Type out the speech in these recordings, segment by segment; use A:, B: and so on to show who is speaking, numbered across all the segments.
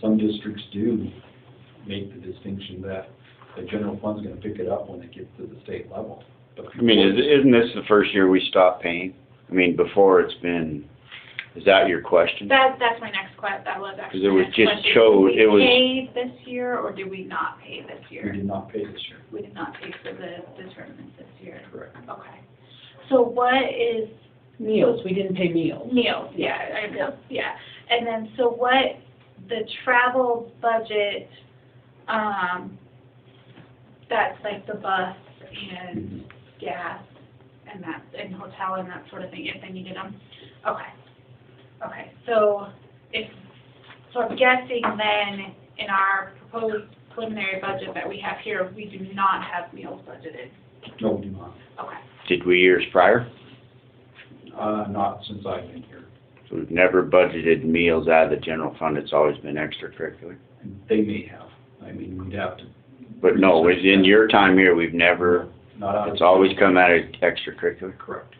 A: some districts do make the distinction that the general fund's gonna pick it up when it gets to the state level. But if
B: I mean,
A: you-
B: is- isn't this the first year we stopped paying? I mean, before it's been, is that your question?
C: That, that's my next que, that was actually.
B: 'Cause it
C: my
B: was
C: next
B: just
C: question.
B: chose- it was-
C: Did we pay this year or did we not pay this
A: We
C: year?
A: did not pay this year,
C: We did not pay for the, the tournament this year.
A: correct?
C: Okay. So what is
D: Meals, we didn't pay meals.
C: meals? Yeah, I know, yeah. And then, so what, the travel budget, um, that's like the bus and
A: Mhm.
C: gas and that, and hotel and that sort of thing, if they needed them? Okay. Okay, so if, so I'm guessing then in our proposed preliminary budget that we have here, we do not have meals budgeted.
A: No, we do not,
C: Okay.
B: Did we years prior?
A: uh, not since I've been here.
B: So We've never budgeted meals out of the general fund, it's always been extracurricular.
A: They may have, I mean, we'd have to.
B: But no, it's in your time here, we've never,
A: Not out of.
B: it's always come out of extracurricular.
A: Correct.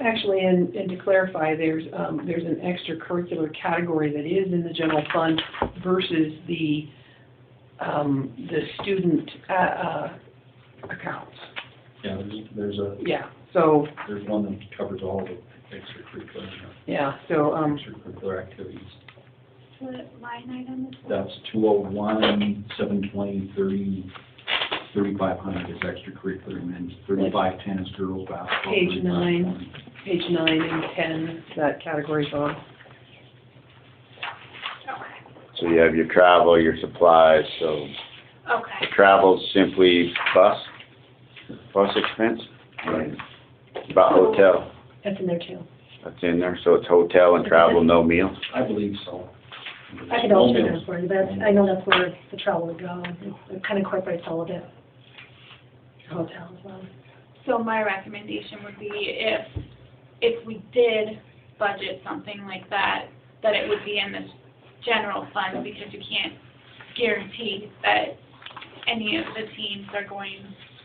D: Actually, and, and to clarify, there's, um, there's an extracurricular category that is in the general fund versus the, um, the student, uh, uh, accounts.
A: Yeah, there's, there's a,
D: Yeah, so,
A: there's one that covers all the extracurricular,
D: yeah, so, um,
A: extracurricular activities.
C: What line item is that?
A: That's two oh one, seven twenty, thirty, thirty-five hundred is extracurricular, and then thirty-five ten is girls basketball.
D: Page
A: 35,
D: nine.
A: 20.
D: page nine and ten, that category's on.
C: Okay,
B: So you have your travel, your supplies, so
C: okay.
B: travel's simply bus, bus expense?
A: Right.
B: About hotel,
D: That's in there too.
B: that's in there, so it's hotel and travel, no meal?
A: I believe so.
E: I could alter that for you, that's, I know that's where the travel would go, It- it kind of incorporates all of it. um, Hotel as well.
C: So my recommendation would be if, if we did budget something like that, that it would be in this general fund because you can't guarantee that any of the teams are going,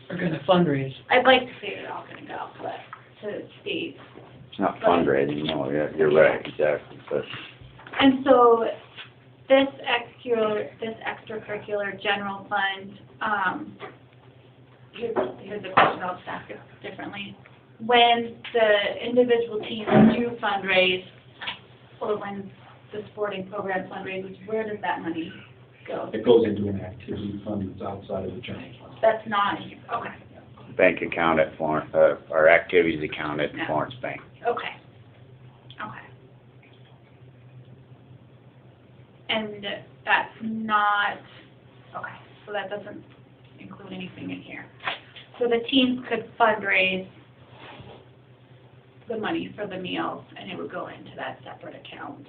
D: We're gonna fundraise.
C: I'd like to say they're all gonna go, but to Steve.
B: It's not fundraising, no, yeah, you're right, exactly, but
C: And so this extracurricular, this extracurricular general fund, um, here's, here's a question I'll just ask it differently. When the individual teams do fundraise, or when the sporting program fundraises, where does that money go?
A: It goes into an activity fund that's outside of the general fund.
C: That's not, okay,
B: bank account at Florence, uh, our activities account at
C: Yeah.
B: Florence Bank.
C: okay, okay. And that's not, okay, so that doesn't include anything in here. So the teams could fundraise the money for the meals, and it would go into that separate account.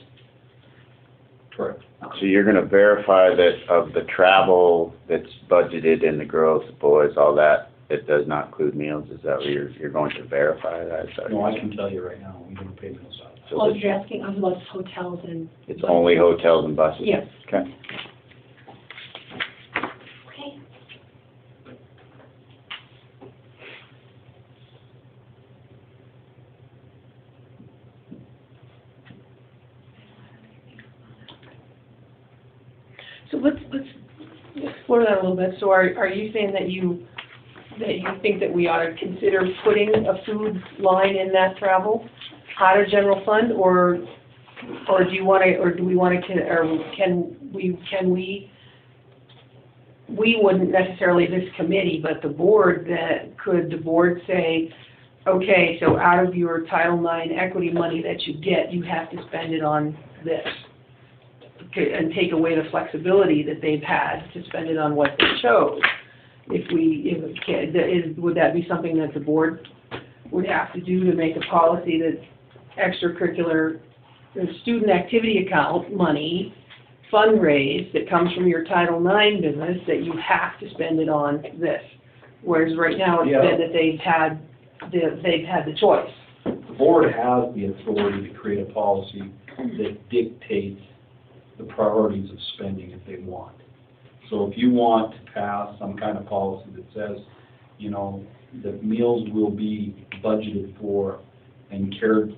A: Correct.
B: So you're gonna verify that of the travel that's budgeted and the girls, boys, all that, it does not include meals, is that what you're, you're going to verify that? Is that-
A: No, I can tell you right now, we don't pay those out.
B: So
E: Oh,
B: it's,
E: you're asking, I love hotels and,
B: it's only hotels and buses?
D: Yes.
B: Okay.
C: Okay.
D: So let's, let's explore that a little bit. So are, are you saying that you, that you think that we ought to consider putting a food line in that travel out of general fund? Or, or do you want to, or do we want to, or can we, can we, we wouldn't necessarily this committee, but the board, that, could the board say, okay, so out of your Title IX equity money that you get, you have to spend it on this? to- and take away the flexibility that they've had to spend it on what they chose. If we, if, it can- that is, would that be something that the board would have to do to make a policy that extracurricular, the student activity account money fundraise that comes from your Title IX business, that you have to spend it on this? Whereas right now, it's
A: Yeah.
D: been that they've had, the- they've had the choice.
A: The board has the authority to create a policy that dictates the priorities of spending if they want. So if you want to pass some kind of policy that says, you know, that meals will be budgeted for and cared